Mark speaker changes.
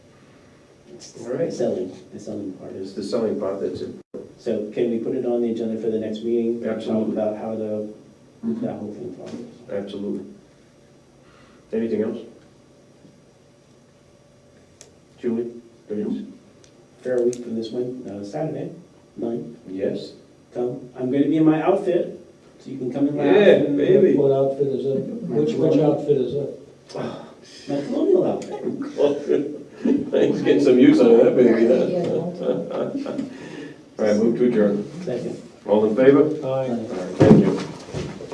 Speaker 1: It's
Speaker 2: All right.
Speaker 1: selling, the selling part is.
Speaker 2: It's the selling part that's, it.
Speaker 1: So can we put it on the agenda for the next meeting?
Speaker 2: Absolutely.
Speaker 1: Talk about how the,
Speaker 2: Mm-hmm.
Speaker 1: that whole thing follows.
Speaker 2: absolutely. Anything else? Julie? Denise?
Speaker 1: Fair week from this one, uh, Saturday, nine,
Speaker 2: Yes?
Speaker 1: come, I'm gonna be in my outfit, so you can come in my
Speaker 2: Yeah,
Speaker 1: outfit. and-
Speaker 2: baby.
Speaker 3: What outfit is it? Which, which outfit is it?
Speaker 1: My colonial outfit.
Speaker 2: Let's get some use out of that baby, huh? All right, move to adjourn.
Speaker 1: Second.
Speaker 2: All in favor?
Speaker 3: Aye.
Speaker 2: All right, Thank you.